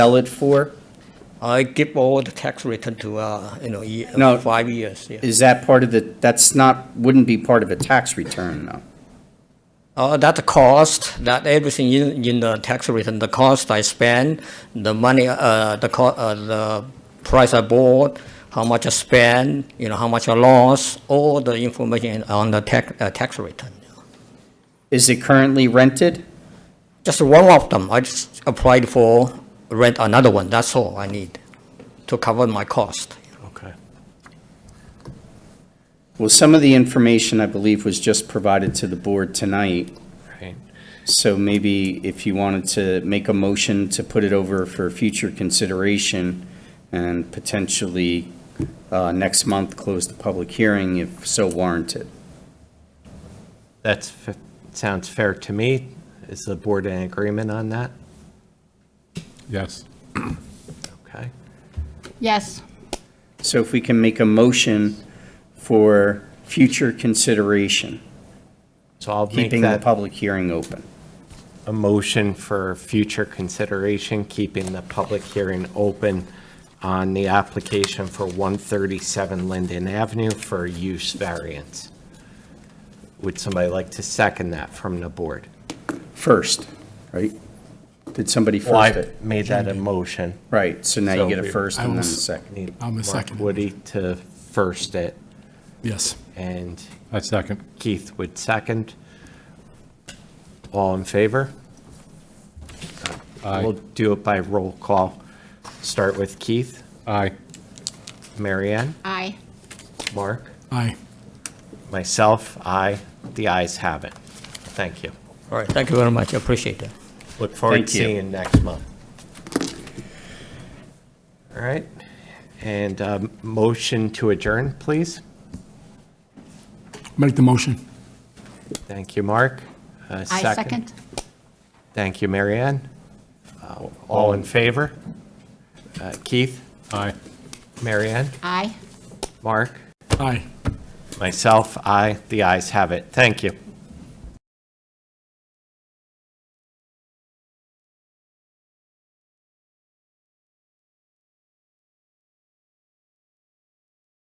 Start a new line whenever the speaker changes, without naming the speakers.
sell it for?
I give all the tax return to, uh, you know, ye-
No.
five years, yeah.
Is that part of the, that's not, wouldn't be part of a tax return, though?
Uh, that the cost, that everything in, in the tax return, the cost I spend, the money, uh, the co- uh, the price I bought, how much I spend, you know, how much I lost, all the information on the tax, uh, tax return.
Is it currently rented?
Just one of them, I just applied for rent another one, that's all I need to cover my cost.
Okay.
Well, some of the information, I believe, was just provided to the board tonight,
Right.
so maybe if you wanted to make a motion to put it over for future consideration and potentially uh, next month, close the public hearing if so warranted.
That's, f- sounds fair to me. Is the board in agreement on that?
Yes.
Okay.
Yes.
So if we can make a motion for future consideration,
So I'll make
keeping the
that
public hearing open.
a motion for future consideration, keeping the public hearing open on the application for 137 Linden Avenue for use variance. Would somebody like to second that from the board?
first, right? Did somebody
Well,
first
I
it?
made that a motion.
Right, so now you
So
get a
we-
first
I
and then a
will-
second.
Need
I'm a
Mark
second.
Woody to first it,
Yes.
and
I second.
Keith would second. All in favor? We'll
Aye.
do it by roll call. Start with Keith,
Aye.
Marianne,
Aye.
Mark,
Aye.
myself, I. The ayes have it. Thank you.
All right, thank you very much, I appreciate that.
Look forward
Thank
to
you.
seeing you next month. All right, and um, motion to adjourn, please.
Make the motion.
Thank you, Mark. A
I second.
Thank you, Marianne. Uh, All in favor? Uh, Keith,
Aye.
Marianne,
Aye.
Mark?
Aye.
Myself, I. The ayes have it. Thank you.